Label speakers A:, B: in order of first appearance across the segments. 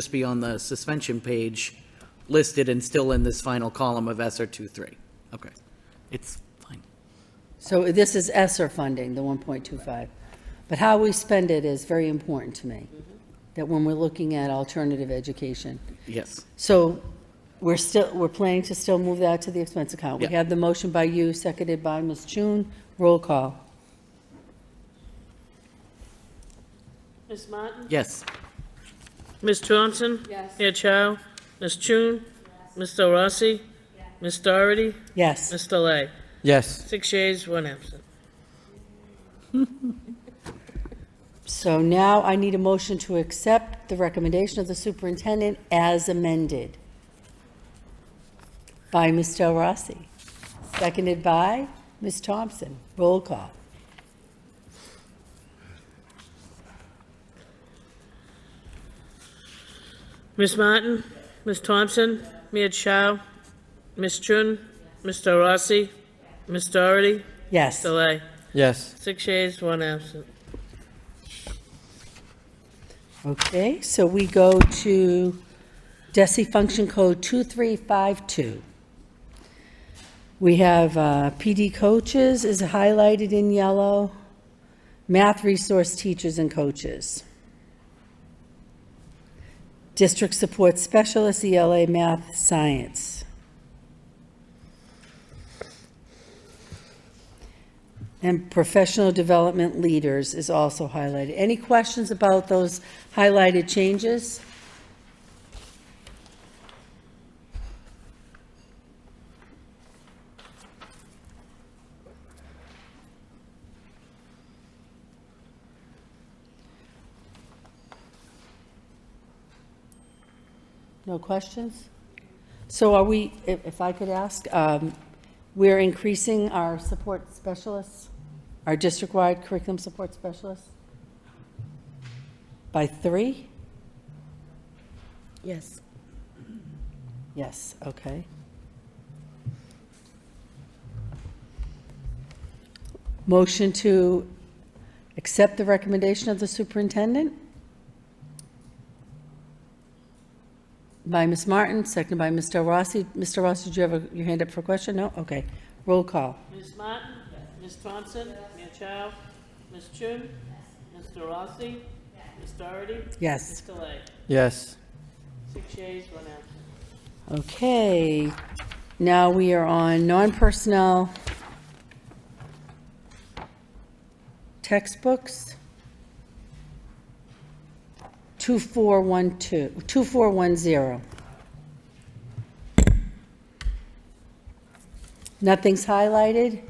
A: just be on the suspension page listed and still in this final column of SR 23. Okay, it's fine.
B: So this is ESSER funding, the 1.25. But how we spend it is very important to me, that when we're looking at alternative education.
A: Yes,
B: So we're still, we're planning to still move that to the expense account. We
A: Yeah.
B: have the motion by you, seconded by Ms. June. Roll call.
C: Ms. Martin?
A: yes,
C: Ms. Thompson? Yes. Mia Chow? Ms. Chun? Mr. Rossi? Ms. Doherty?
B: Yes.
C: Ms. Delay?
D: Yes,
C: Six yeas, one absent.
B: So now I need a motion to accept the recommendation of the superintendent as amended by Ms. Del Rossi, seconded by Ms. Thompson. Roll call.
C: Ms. Martin? Ms. Thompson? Mia Chow? Ms. Chun? Mr. Rossi? Ms. Doherty?
B: Yes.
C: Delay?
D: yes,
C: Six yeas, one absent.
B: Okay, so we go to DESI Function Code 2352. We have uh, PD coaches is highlighted in yellow, math resource teachers and coaches. District support specialists, ELA, math, science. And professional development leaders is also highlighted. Any questions about those highlighted changes? No questions? So are we, if if I could ask, um, we're increasing our support specialists, our district-wide curriculum support specialists? By three?
E: Yes.
B: Yes, okay. Motion to accept the recommendation of the superintendent? By Ms. Martin, seconded by Mr. Rossi. Mr. Rossi, did you have a- your hand up for a question? No? Okay. Roll call.
C: Ms. Martin? Ms. Thompson? Mia Chow? Ms. Chun? Mr. Rossi? Ms. Doherty?
B: Yes.
C: Delay?
D: yes,
C: Six yeas, one absent.
B: Okay. Now we are on non-personnel textbooks. 2412, 2410. Nothing's highlighted.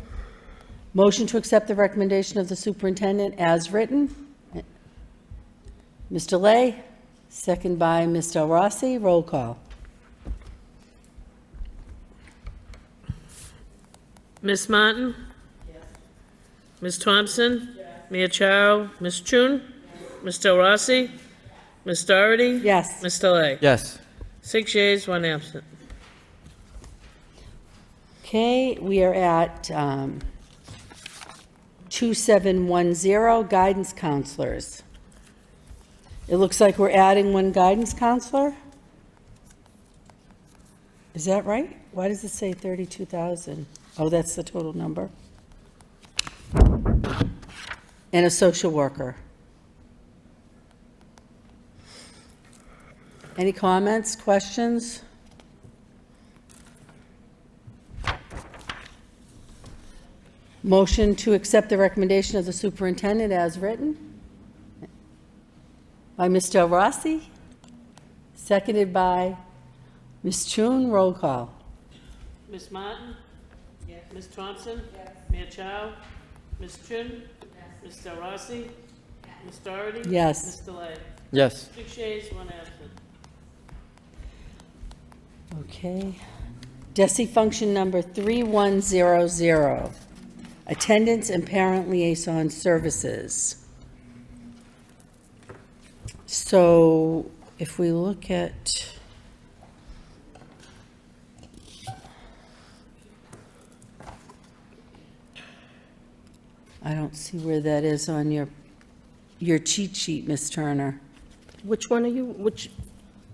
B: Motion to accept the recommendation of the superintendent as written. Mr. Lay, second by Ms. Del Rossi. Roll call.
C: Ms. Martin? Ms. Thompson? Mia Chow? Ms. Chun? Ms. Del Rossi? Ms. Doherty?
B: Yes.
C: Ms. Delay?
D: yes,
C: Six yeas, one absent.
B: Okay, we are at um, 2710, guidance counselors. It looks like we're adding one guidance counselor? Is that right? Why does it say 32,000? Oh, that's the total number? And a social worker. Any comments, questions? Motion to accept the recommendation of the superintendent as written by Ms. Del Rossi, seconded by Ms. Chun. Roll call.
C: Ms. Martin? Yes. Ms. Thompson? Yes. Mia Chow? Ms. Chun? Yes. Ms. Del Rossi? Ms. Doherty?
B: Yes.
C: Ms. Delay?
D: yes,
C: Six yeas, one absent.
B: Okay. DESI function number 3100, attendance and parent liaison services. So if we look at... I don't see where that is on your, your cheat sheet, Ms. Turner.
E: Which one are you, which,